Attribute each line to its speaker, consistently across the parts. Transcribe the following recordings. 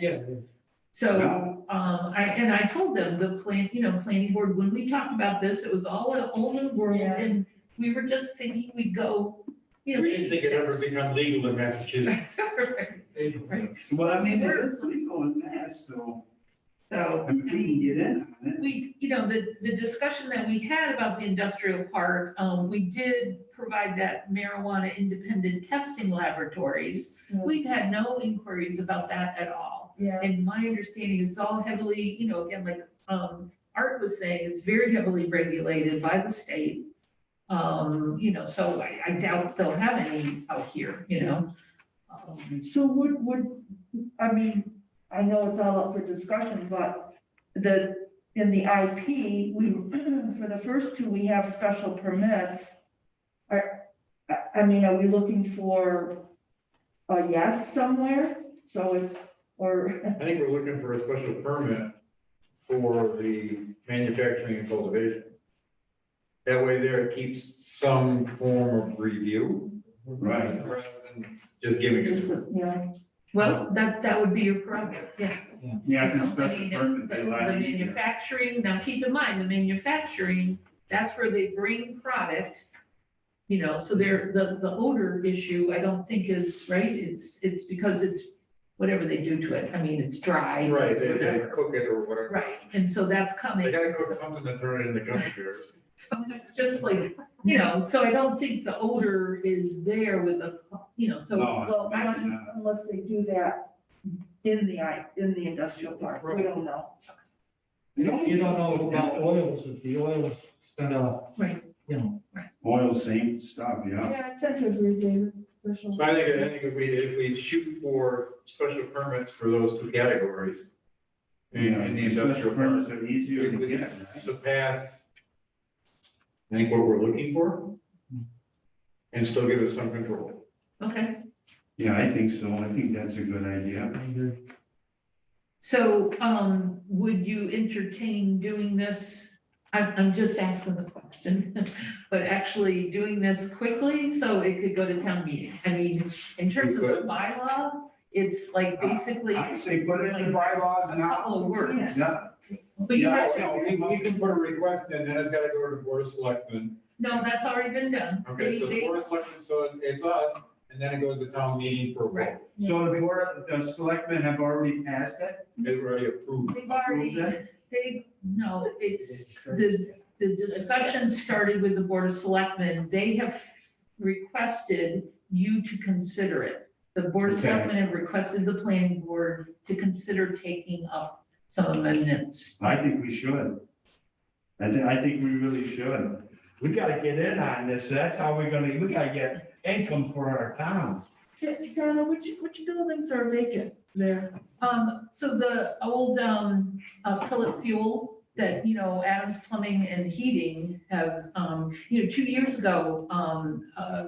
Speaker 1: Yeah.
Speaker 2: So, um, I, and I told them the plan, you know, planning board, when we talked about this, it was all a whole new world
Speaker 3: Yeah.
Speaker 2: and we were just thinking we'd go, you know.
Speaker 1: We didn't think it ever become legal in Massachusetts.
Speaker 2: Right.
Speaker 4: Well, I mean, it's legal in Mass, so,
Speaker 2: So,
Speaker 4: I mean, we can get in on it.
Speaker 2: we, you know, the, the discussion that we had about the industrial park, um, we did provide that marijuana independent testing laboratories. We've had no inquiries about that at all.
Speaker 3: Yeah,
Speaker 2: And my understanding is all heavily, you know, again, like, um, Art was saying, it's very heavily regulated by the state. Um, you know, so I, I doubt they'll have any out here, you know? Um,
Speaker 3: so would, would, I mean, I know it's all up for discussion, but the, in the IP, we, for the first two, we have special permits. Are, I, I mean, are we looking for a yes somewhere? So it's, or,
Speaker 1: I think we're looking for a special permit for the manufacturing and cultivation. That way there it keeps some form of review.
Speaker 4: Right.
Speaker 1: Rather than just giving
Speaker 3: just,
Speaker 1: it.
Speaker 3: you know,
Speaker 2: Well, that, that would be your prerogative, yeah.
Speaker 4: Yeah, I
Speaker 2: You
Speaker 4: think
Speaker 2: know,
Speaker 4: special
Speaker 2: mean, the-
Speaker 4: permit, they like
Speaker 2: The
Speaker 4: it.
Speaker 2: manufacturing, now keep in mind, the manufacturing, that's where they bring product. You know, so there, the, the odor issue, I don't think is, right, it's, it's because it's whatever they do to it, I mean, it's dry.
Speaker 1: Right, they, they
Speaker 2: whatever.
Speaker 1: cook it or whatever.
Speaker 2: Right, and so that's
Speaker 1: They
Speaker 2: coming,
Speaker 1: gotta cook something to turn it into gummy bears.
Speaker 2: so it's just like, you know, so I don't think the odor is there with the, you know, so.
Speaker 4: No,
Speaker 3: well,
Speaker 4: Oh, I
Speaker 3: unless,
Speaker 4: imagine
Speaker 1: uh,
Speaker 4: not.
Speaker 3: unless they do that in the I, in the industrial park, we don't know.
Speaker 5: You
Speaker 4: uh,
Speaker 5: don't, you don't know about oils, if the oils set up.
Speaker 2: Right.
Speaker 5: You know,
Speaker 4: Oil same stuff, yeah.
Speaker 3: Yeah, I tend to agree, David, Rachel.
Speaker 1: So I think, I think if we, if we shoot for special permits for those two categories. in- in the
Speaker 4: Yeah,
Speaker 1: industrial
Speaker 4: Special
Speaker 1: park.
Speaker 4: permits are easier
Speaker 1: It
Speaker 4: to
Speaker 1: would
Speaker 4: get,
Speaker 1: s-
Speaker 4: right?
Speaker 1: surpass, I think, what we're looking for. And still give us some control.
Speaker 2: Okay,
Speaker 4: Yeah, I think so. I think that's a good idea.
Speaker 5: I agree.
Speaker 2: so, um, would you entertain doing this? I'm, I'm just asking the question, but actually doing this quickly so it could go to town meeting. I mean, in terms of the bylaw, it's like basically
Speaker 4: I
Speaker 2: a
Speaker 4: say put it in the bylaws now.
Speaker 2: couple of words.
Speaker 4: Yeah,
Speaker 2: But you
Speaker 4: Yeah.
Speaker 2: have to,
Speaker 4: no, we- we
Speaker 1: can put a request in, then it's gotta go to the board of selectmen.
Speaker 2: no, that's already been done.
Speaker 1: Okay, so
Speaker 2: They-
Speaker 1: the
Speaker 2: they-
Speaker 1: board of selectmen, so it's us, and then it goes to town meeting for a vote.
Speaker 4: So the board, the selectmen have already passed it?
Speaker 1: They were already approved.
Speaker 2: They've already, they, no, it's, the, the discussion started with the Board of Selectmen. They have requested you to consider it. The Board of
Speaker 4: Okay.
Speaker 2: Selectmen have requested the planning board to consider taking up some amendments.
Speaker 4: I think we should. I think, I think we really should.
Speaker 6: We gotta get in on this, that's how we're gonna, we gotta get income for our town.
Speaker 3: Donna, which, which buildings are vacant there?
Speaker 2: Um, so the old, um, uh, pellet fuel that, you know, Adams Plumbing and Heating have, um, you know, two years ago, um, uh,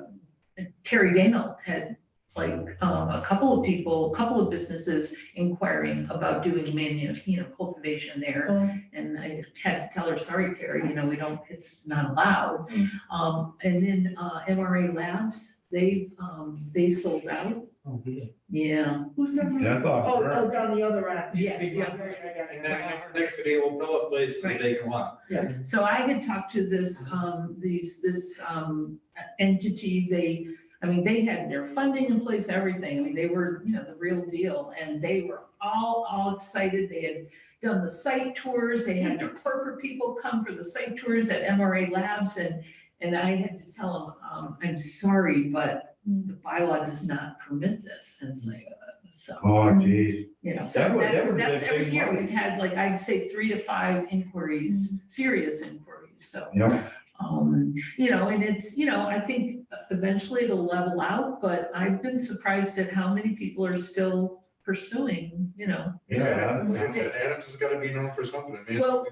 Speaker 2: Terry Daniel had like, um, a couple of people, a couple of businesses inquiring about doing manu, you know, cultivation there.
Speaker 3: Um,
Speaker 2: And I had to tell her, sorry, Terry, you know, we don't, it's not allowed.
Speaker 3: Mm.
Speaker 2: Um, and then, uh, MRA Labs, they, um, they sold out.
Speaker 5: Oh, yeah.
Speaker 2: Yeah.
Speaker 3: Who's that?
Speaker 6: That's all.
Speaker 3: Oh,
Speaker 6: right.
Speaker 3: oh, down the other end.
Speaker 2: Yes,
Speaker 3: Yeah,
Speaker 2: yeah.
Speaker 3: yeah, yeah, yeah.
Speaker 1: And then next- next to the old pellet place is a
Speaker 2: Right.
Speaker 1: vacant lot.
Speaker 2: So I had talked to this, um, these, this, um, entity, they, I mean, they had their funding in place, everything, I mean, they were, you know, the real deal, and they were all, all excited, they had done the site tours, they had their corporate people come for the site tours at MRA Labs, and, and I had to tell them, um, I'm sorry, but the bylaw does not permit this, and it's like, uh, so.
Speaker 4: Oh, geez.
Speaker 2: You know, so
Speaker 6: That would- that
Speaker 2: that,
Speaker 6: would be
Speaker 2: that's
Speaker 6: a
Speaker 2: every
Speaker 6: big
Speaker 2: year,
Speaker 6: money.
Speaker 2: we've had like, I'd say three to five inquiries, serious inquiries, so.
Speaker 4: Yep.
Speaker 2: Um, you know, and it's, you know, I think eventually it'll level out, but I've been surprised at how many people are still pursuing, you know.
Speaker 1: Like I said, Adams has gotta be known for something, man.
Speaker 2: Well-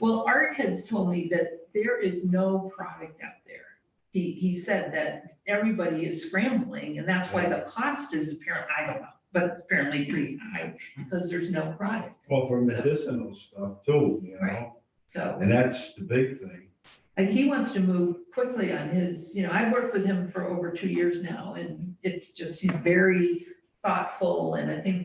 Speaker 2: Well, Art has told me that there is no product out there. He, he said that everybody is scrambling and that's why the cost is apparent, I don't know, but it's apparently pretty high because there's no product,
Speaker 6: Well, for medicinal stuff too, you know,
Speaker 2: so.
Speaker 6: and that's the big thing.
Speaker 2: Like he wants to move quickly on his, you know, I've worked with him for over two years now and it's just, he's very thoughtful and I think